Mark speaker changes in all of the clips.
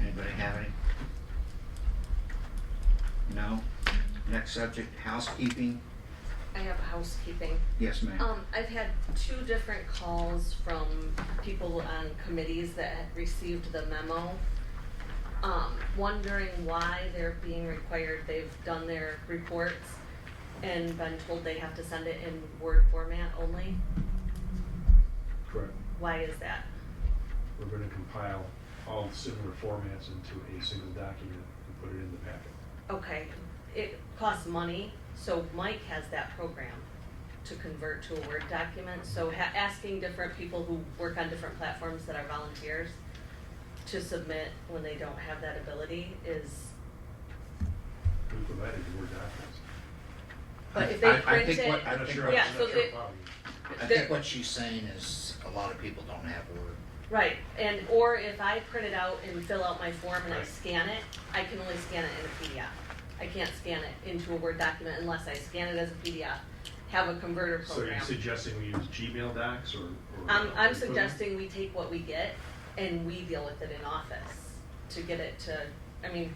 Speaker 1: Anybody have any? No? Next subject, housekeeping?
Speaker 2: I have housekeeping.
Speaker 1: Yes, ma'am.
Speaker 2: Um, I've had two different calls from people on committees that had received the memo. Um, wondering why they're being required, they've done their reports and been told they have to send it in Word format only.
Speaker 3: Correct.
Speaker 2: Why is that?
Speaker 3: We're going to compile all similar formats into a single document and put it in the packet.
Speaker 2: Okay, it costs money, so Mike has that program to convert to a Word document, so ha- asking different people who work on different platforms that are volunteers to submit when they don't have that ability is,
Speaker 3: We provided the Word documents.
Speaker 2: but
Speaker 1: I-
Speaker 2: if they
Speaker 1: I
Speaker 2: print
Speaker 1: think what-
Speaker 2: it,
Speaker 3: I'm not sure,
Speaker 2: yeah,
Speaker 3: I'm
Speaker 2: so
Speaker 3: not sure
Speaker 2: it-
Speaker 3: how you.
Speaker 1: I
Speaker 2: there-
Speaker 1: think what she's saying is a lot of people don't have Word.
Speaker 2: right, and, or if I print it out and fill out my form and I
Speaker 3: Right.
Speaker 2: scan it, I can only scan it in a PDF. I can't scan it into a Word document unless I scan it as a PDF, have a converter
Speaker 3: So are
Speaker 2: program.
Speaker 3: you suggesting we use Gmail docs or? or-
Speaker 2: I'm, Um, I'm
Speaker 3: or-
Speaker 2: suggesting we take what we get and we deal with it in office to get it to, I mean,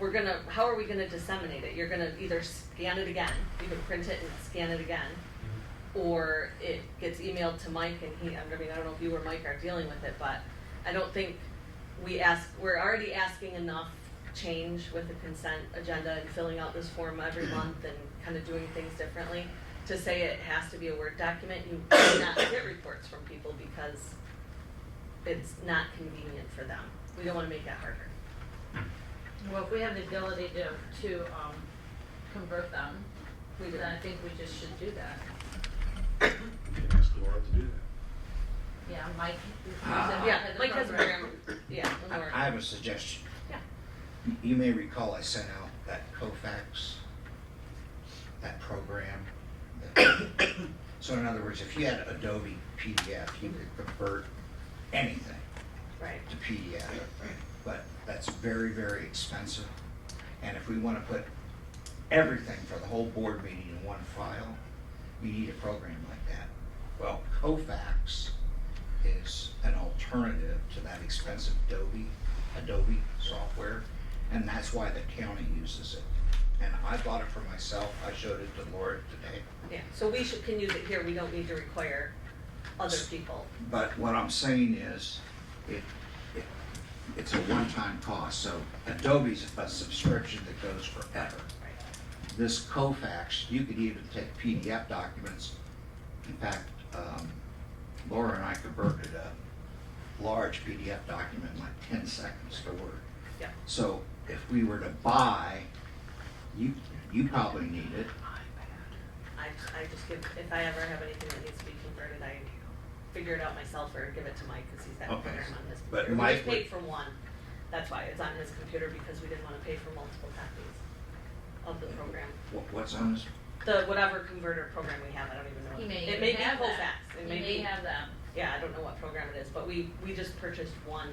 Speaker 2: we're gonna, how are we gonna disseminate it? You're gonna either scan it again, you can print it and scan it again, or it gets emailed to Mike and he, I mean, I don't know if you or Mike are dealing with it, but I don't think we ask, we're already asking enough change with the consent agenda and filling out this form every month and kind of doing things differently. To say it has to be a Word document, you cannot get reports from people because it's not convenient for them. We don't wanna make that harder.
Speaker 4: Well, if we have the ability to, to, um, convert them,
Speaker 2: We do
Speaker 4: then I think we just should do that.
Speaker 3: We can ask Laura to do that.
Speaker 4: Yeah, Mike, you said
Speaker 1: Ah.
Speaker 4: Mike
Speaker 2: Yeah,
Speaker 4: had the
Speaker 2: Mike has a
Speaker 4: Oh, program.
Speaker 2: program, yeah,
Speaker 1: I
Speaker 2: Lenore.
Speaker 1: I have a suggestion.
Speaker 2: Yeah.
Speaker 1: You- You may recall I sent out that Kofax, that program. that- So in other words, if you had Adobe PDF, you could convert anything.
Speaker 2: right,
Speaker 1: to PDF, but that's very, very expensive. And if we want to put everything for the whole board meeting in one file, you need a program like that. Well, Kofax is an alternative to that expensive Adobe, Adobe software, and that's why the county uses it. And I bought it for myself, I showed it to Laura today.
Speaker 2: yeah, so we should, can use it here, we don't need to require other people.
Speaker 1: But what I'm saying is, it, it, it's a one-time cost, so Adobe's a subscription that goes forever. This Kofax, you could even take PDF documents, in fact, um, Laura and I converted a large PDF document in like ten seconds to Word.
Speaker 2: Yeah.
Speaker 1: So if we were to buy, you, you probably need it,
Speaker 2: I, I just give, if I ever have anything that needs to be converted, I figure it out myself or give it to Mike, cause he's got
Speaker 1: Okay.
Speaker 2: it on his
Speaker 1: But
Speaker 2: computer. We
Speaker 1: Mike
Speaker 2: just
Speaker 1: would-
Speaker 2: paid for one, that's why, it's on his computer because we didn't wanna pay for multiple copies of the program.
Speaker 1: what, what's on this?
Speaker 2: The whatever converter program we have, I don't even know.
Speaker 4: He may
Speaker 2: It
Speaker 4: even
Speaker 2: may be
Speaker 4: have that.
Speaker 2: Kofax,
Speaker 4: He
Speaker 2: it may be,
Speaker 4: have them.
Speaker 2: yeah, I don't know what program it is, but we, we just purchased one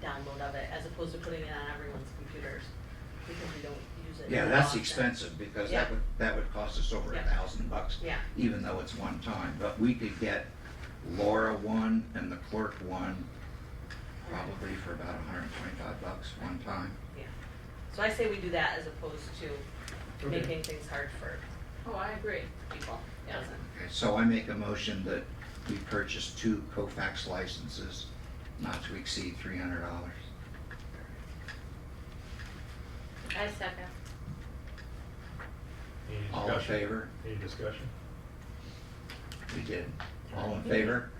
Speaker 2: download of it as opposed to putting it on everyone's computers because we don't use it.
Speaker 1: Yeah,
Speaker 2: that
Speaker 1: that's
Speaker 2: often.
Speaker 1: expensive, because
Speaker 2: Yeah.
Speaker 1: that would, that would cost us over a
Speaker 2: Yeah.
Speaker 1: thousand bucks.
Speaker 2: Yeah.
Speaker 1: Even though it's one time, but we could get Laura one and the clerk one, probably for about hundred and twenty-five bucks one time.
Speaker 2: So I say we do that as opposed to
Speaker 3: Okay.
Speaker 2: making things hard for
Speaker 4: Oh, I agree.
Speaker 2: people, doesn't.
Speaker 1: Okay, so I make a motion that we purchase two Kofax licenses, not to exceed three hundred dollars.
Speaker 4: I second.
Speaker 3: Any
Speaker 1: All in
Speaker 3: discussion?
Speaker 1: favor?
Speaker 3: Any discussion?
Speaker 1: We did. All in favor?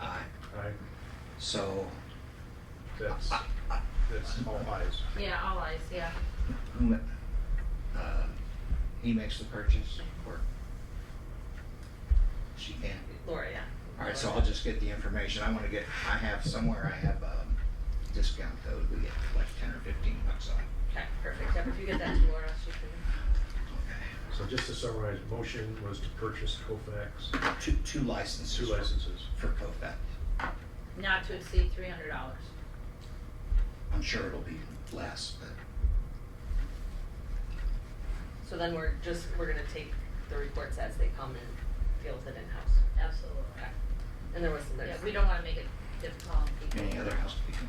Speaker 1: Aye.
Speaker 3: Aye,
Speaker 1: So,
Speaker 3: that's, that's all ayes.
Speaker 4: Yeah, all eyes, yeah.
Speaker 1: who, ma- uh, he makes the purchase, or she can?
Speaker 2: Laura, yeah.
Speaker 1: All right, so I'll just get the information. I want to get, I have somewhere, I have a discount code. We get like ten or fifteen bucks off.
Speaker 2: Okay, perfect. Yep, if you get that to Laura, she can,
Speaker 1: Okay.
Speaker 3: So just to summarize, motion was to purchase Kofax,
Speaker 1: Two, two licenses.
Speaker 3: two
Speaker 1: for-
Speaker 3: licenses.
Speaker 1: For Kofax.
Speaker 4: Not to exceed three hundred dollars.
Speaker 1: I'm sure it'll be less, but
Speaker 2: so then we're just, we're gonna take the reports as they come and deal with it in-house.
Speaker 4: Absolutely.
Speaker 2: And there was some,
Speaker 4: Yeah,
Speaker 2: there's,
Speaker 4: we don't wanna make it difficult on people.
Speaker 1: any other housekeeping?